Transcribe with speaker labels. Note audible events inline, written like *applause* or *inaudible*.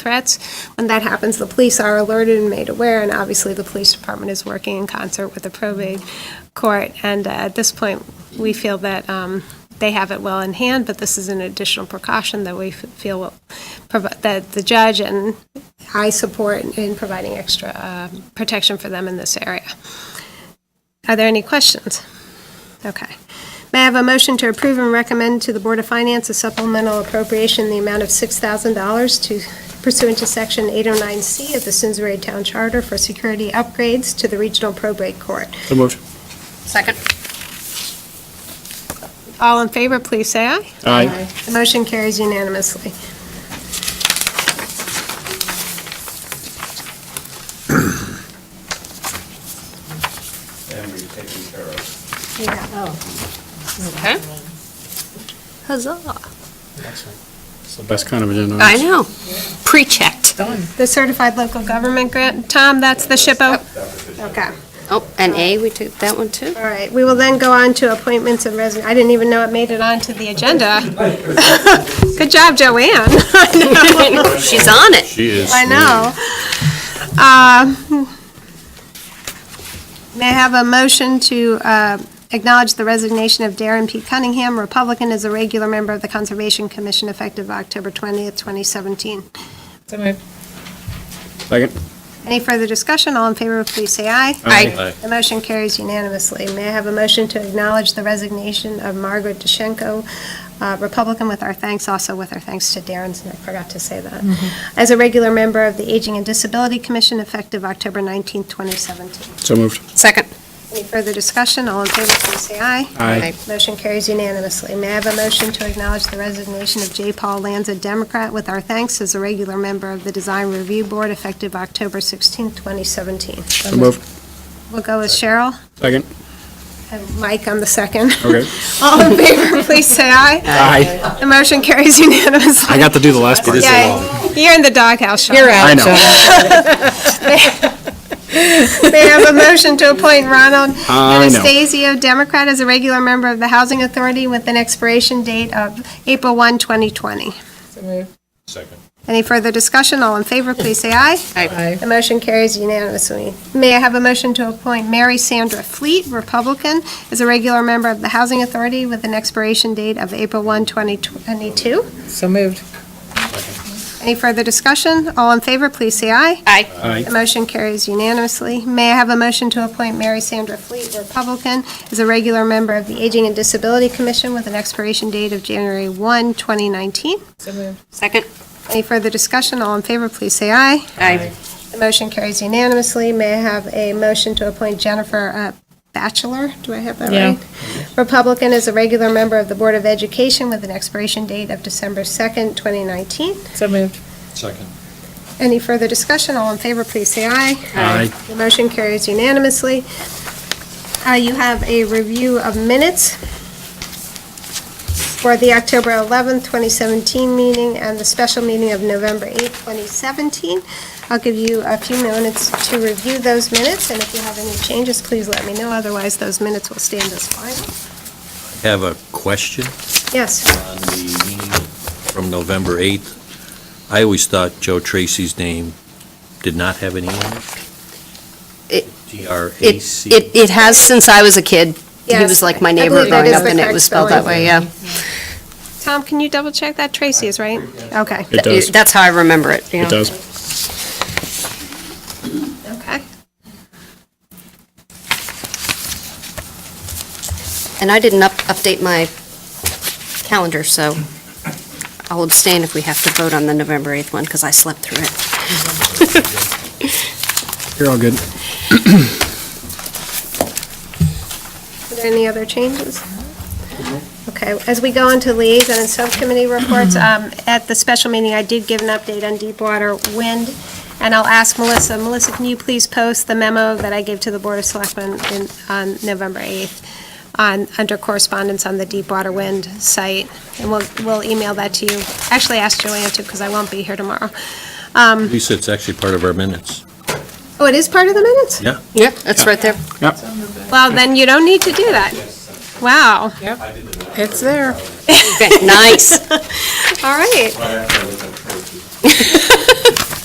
Speaker 1: threats. When that happens, the police are alerted and made aware, and obviously, the police department is working in concert with the probate court. And uh, at this point, we feel that um, they have it well in hand, but this is an additional precaution that we f- feel will provi- that the judge and I support in providing extra uh, protection for them in this area. Are there any questions? Okay. May I have a motion to approve and recommend to the Board of Finance a supplemental appropriation in the amount of $6,000 to pursuant to Section 809C of the Simsbury Town Charter for security upgrades to the Regional Probate Court.
Speaker 2: So moved.
Speaker 3: Second.
Speaker 1: All in favor, please say aye.
Speaker 2: Aye.
Speaker 1: The motion carries unanimously.
Speaker 4: and we've taken care of.
Speaker 1: uh,
Speaker 3: Okay. Huzzah.
Speaker 2: It's the best kind of agenda.
Speaker 3: I know. Pre-checked.
Speaker 1: The Certified Local Government Grant, Tom, that's the SHPO? Okay.
Speaker 3: Oh, and A, we took that one too?
Speaker 1: All right, we will then go on to appointments and resign, I didn't even know it made it onto the agenda. *laughs* Good job, Joanne. *laughs*
Speaker 3: *laughs* She's on it.
Speaker 2: She is.
Speaker 1: I know. Um, May I have a motion to uh, acknowledge the resignation of Darren P. Cunningham, Republican, as a regular member of the Conservation Commission effective October 20th, 2017?
Speaker 2: Second.
Speaker 1: Any further discussion? All in favor, please say aye.
Speaker 3: Aye.
Speaker 1: The motion carries unanimously. May I have a motion to acknowledge the resignation of Margaret DeShenko, uh, Republican, with our thanks, also with our thanks to Darren's, and I forgot to say that, as a regular member of the Aging and Disability Commission effective October 19th, 2017.
Speaker 2: So moved.
Speaker 3: Second.
Speaker 1: Any further discussion? All in favor, please say aye.
Speaker 2: Aye.
Speaker 1: Motion carries unanimously. May I have a motion to acknowledge the resignation of J. Paul Lanza, Democrat, with our thanks as a regular member of the Design Review Board effective October 16th, 2017?
Speaker 2: So moved.
Speaker 1: We'll go with Cheryl
Speaker 2: Second.
Speaker 1: and Mike on the second.
Speaker 2: Okay.
Speaker 1: *laughs* All in favor, please say aye.
Speaker 2: Aye.
Speaker 1: The motion carries unanimously.
Speaker 2: I got to do the last part.
Speaker 1: Yay. You're in the doghouse, Sean.
Speaker 2: I know.
Speaker 1: They have a motion to appoint Ronald
Speaker 2: I know.
Speaker 1: Anastasio, Democrat, as a regular member of the Housing Authority with an expiration date of April 1, 2020.
Speaker 4: Second.
Speaker 1: Any further discussion? All in favor, please say aye.
Speaker 3: Aye.
Speaker 1: The motion carries unanimously. May I have a motion to appoint Mary Sandra Fleet, Republican, as a regular member of the Housing Authority with an expiration date of April 1, 2022?
Speaker 5: So moved.
Speaker 1: Any further discussion? All in favor, please say aye.
Speaker 3: Aye.
Speaker 2: Aye.
Speaker 1: The motion carries unanimously. May I have a motion to appoint Mary Sandra Fleet, Republican, as a regular member of the Aging and Disability Commission with an expiration date of January 1, 2019?
Speaker 5: So moved.
Speaker 3: Second.
Speaker 1: Any further discussion? All in favor, please say aye.
Speaker 3: Aye.
Speaker 1: The motion carries unanimously. May I have a motion to appoint Jennifer uh, Bachelor? Do I have that
Speaker 5: Yeah.
Speaker 1: right? Republican, as a regular member of the Board of Education with an expiration date of December 2nd, 2019?
Speaker 5: So moved.
Speaker 4: Second.
Speaker 1: Any further discussion? All in favor, please say aye.
Speaker 2: Aye.
Speaker 1: The motion carries unanimously. Uh, You have a review of minutes for the October 11th, 2017 meeting and the special meeting of November 8th, 2017. I'll give you a few minutes to review those minutes, and if you have any changes, please let me know, otherwise those minutes will stand as final.
Speaker 6: Have a question
Speaker 1: Yes,
Speaker 6: on the meeting from November 8th. I always thought Joe Tracy's name did not have an E in it.
Speaker 3: It- It,
Speaker 6: T-R-A-C.
Speaker 3: it, it has since I was a kid. He
Speaker 1: Yes.
Speaker 3: was like my
Speaker 1: I
Speaker 3: neighbor
Speaker 1: believe that
Speaker 3: growing
Speaker 1: is
Speaker 3: up
Speaker 1: the
Speaker 3: and it
Speaker 1: correct
Speaker 3: was spelled that
Speaker 1: spelling.
Speaker 3: way, yeah.
Speaker 1: Tom, can you double-check that? Tracy is right? Okay.
Speaker 2: It does. It
Speaker 3: That's how I remember it, yeah.
Speaker 2: does.
Speaker 1: Okay.
Speaker 3: And I didn't up, update my calendar, so I'll abstain if we have to vote on the November 8th one because I slept through it.
Speaker 2: You're all good.
Speaker 1: Are there any other changes? Okay, as we go into liaison and subcommittee reports, um, at the special meeting, I did give an update on Deepwater Wind, and I'll ask Melissa, Melissa, can you please post the memo that I gave to the Board of Selectmen in- on November 8th on, under correspondence on the Deepwater Wind site, and we'll, we'll email that to you. Actually, ask Joanne to, because I won't be here tomorrow. Um,
Speaker 6: At least it's actually part of our minutes.
Speaker 1: Oh, it is part of the minutes?
Speaker 6: Yeah.
Speaker 3: Yep, that's right there.
Speaker 2: Yep.
Speaker 1: Well, then you don't need to do that. Wow,
Speaker 5: It's there.
Speaker 3: Okay, Nice.
Speaker 1: all right.